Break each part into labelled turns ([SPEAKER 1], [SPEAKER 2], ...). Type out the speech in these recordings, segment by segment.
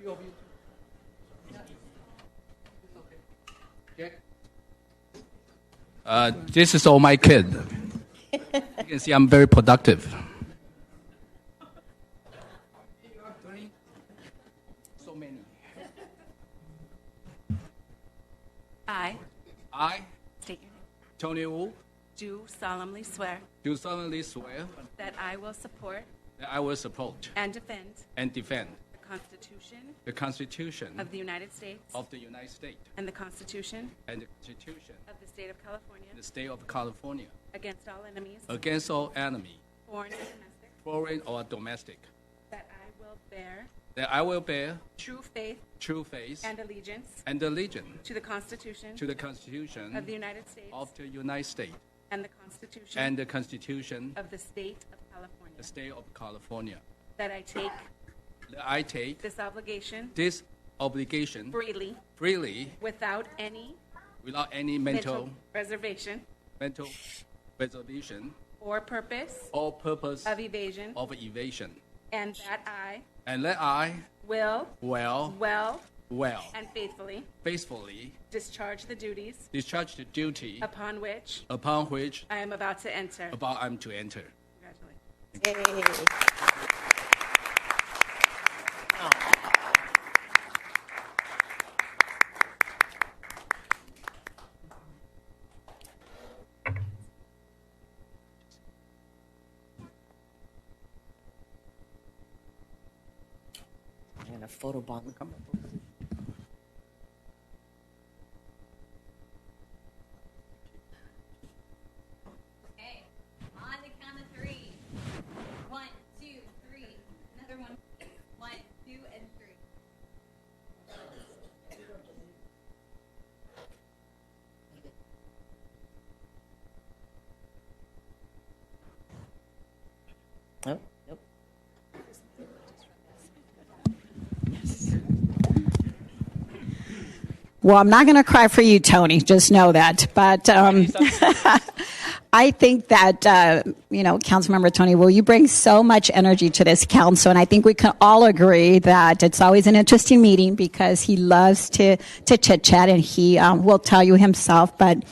[SPEAKER 1] be over you. Okay. Uh, this is all my kid. you can see I'm very productive. So many.
[SPEAKER 2] I
[SPEAKER 1] I,
[SPEAKER 2] state your name.
[SPEAKER 1] Tony Wu,
[SPEAKER 2] Do solemnly swear
[SPEAKER 1] do solemnly swear
[SPEAKER 2] that I will support
[SPEAKER 1] that I will support
[SPEAKER 2] and defend
[SPEAKER 1] and defend
[SPEAKER 2] the Constitution
[SPEAKER 1] the Constitution
[SPEAKER 2] of the United States
[SPEAKER 1] of the United States
[SPEAKER 2] and the Constitution
[SPEAKER 1] and the Constitution
[SPEAKER 2] of the State of California
[SPEAKER 1] of the State of California
[SPEAKER 2] against all enemies,
[SPEAKER 1] against all enemy,
[SPEAKER 2] foreign and domestic,
[SPEAKER 1] foreign or domestic,
[SPEAKER 2] that I will bear
[SPEAKER 1] that I will bear
[SPEAKER 2] true faith
[SPEAKER 1] true faith
[SPEAKER 2] and allegiance
[SPEAKER 1] and allegiance
[SPEAKER 2] to the Constitution
[SPEAKER 1] to the Constitution
[SPEAKER 2] of the United States
[SPEAKER 1] of the United States
[SPEAKER 2] and the Constitution
[SPEAKER 1] and the Constitution
[SPEAKER 2] of the State of California,
[SPEAKER 1] the State of California.
[SPEAKER 2] that I take
[SPEAKER 1] That I take
[SPEAKER 2] this obligation
[SPEAKER 1] this obligation
[SPEAKER 2] freely
[SPEAKER 1] freely
[SPEAKER 2] without any
[SPEAKER 1] without any mental
[SPEAKER 2] mental reservation
[SPEAKER 1] mental reservation
[SPEAKER 2] or purpose
[SPEAKER 1] or purpose
[SPEAKER 2] of evasion
[SPEAKER 1] of evasion,
[SPEAKER 2] And that I
[SPEAKER 1] and let I
[SPEAKER 2] will
[SPEAKER 1] well
[SPEAKER 2] well
[SPEAKER 1] well
[SPEAKER 2] and faithfully
[SPEAKER 1] faithfully
[SPEAKER 2] discharge the duties
[SPEAKER 1] discharge the duty
[SPEAKER 2] upon which
[SPEAKER 1] upon which
[SPEAKER 2] I am about to enter.
[SPEAKER 1] about I'm to enter.
[SPEAKER 2] Congratulations.
[SPEAKER 3] And a photobomb.
[SPEAKER 4] Okay, on the count of three. One, two, three. Another one. One, two, and three.
[SPEAKER 3] Nope, nope.
[SPEAKER 5] Well, I'm not going to cry for you, Tony. Just know that. But um, I think that uh, you know, Councilmember Tony, will you bring so much energy to this council? And I think we can all agree that it's always an interesting meeting because he loves to to chit chat, and he um, will tell you himself. But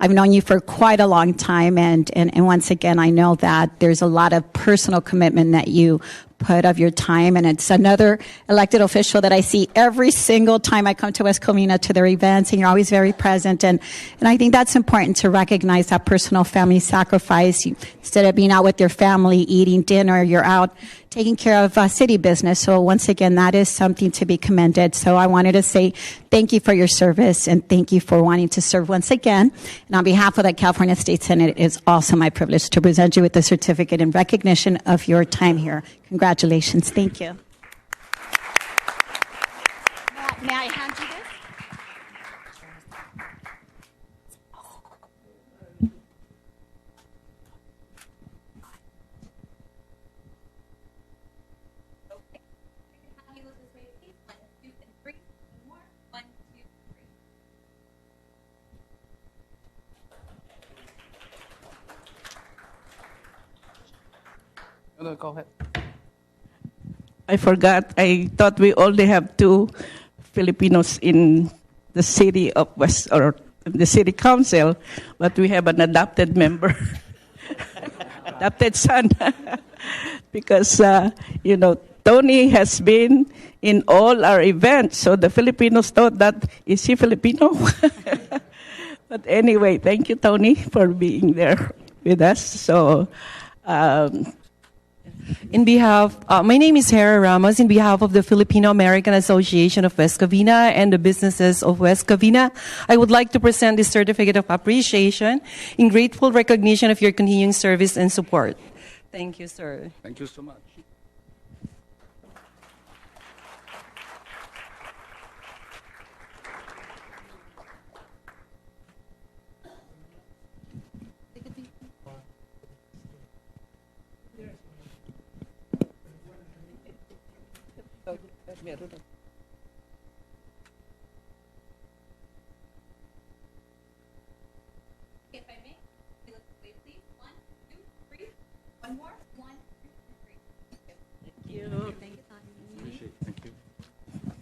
[SPEAKER 5] I've known you for quite a long time, and, and and once again, I know that there's a lot of personal commitment that you put of your time. And it's another elected official that I see every single time I come to West Covina to their events, and you're always very present. And, and I think that's important to recognize that personal family sacrifice. You, instead of being out with your family, eating dinner, you're out taking care of uh, city business. So once again, that is something to be commended. So I wanted to say thank you for your service and thank you for wanting to serve once again. And on behalf of the California State Senate, it is also my privilege to present you with the certificate in recognition of your time here. Congratulations. Thank you. May I hand you this?
[SPEAKER 4] How you look this way, please. One, two, and three. One more. One, two, three.
[SPEAKER 6] go ahead.
[SPEAKER 7] I forgot. I thought we only have two Filipinos in the city of West or the city council, but we have an adopted member, adopted son, because uh, you know Tony has been in all our events. So the Filipinos thought that is he Filipino? but anyway, thank you, Tony, for being there with us. So. Um,
[SPEAKER 6] In behalf, uh, my name is Hera Ramos. In behalf of the Filipino American Association of West Covina and the businesses of West Covina, I would like to present this certificate of appreciation in grateful recognition of your continuing service and support. Thank you, sir.
[SPEAKER 1] Thank you so much.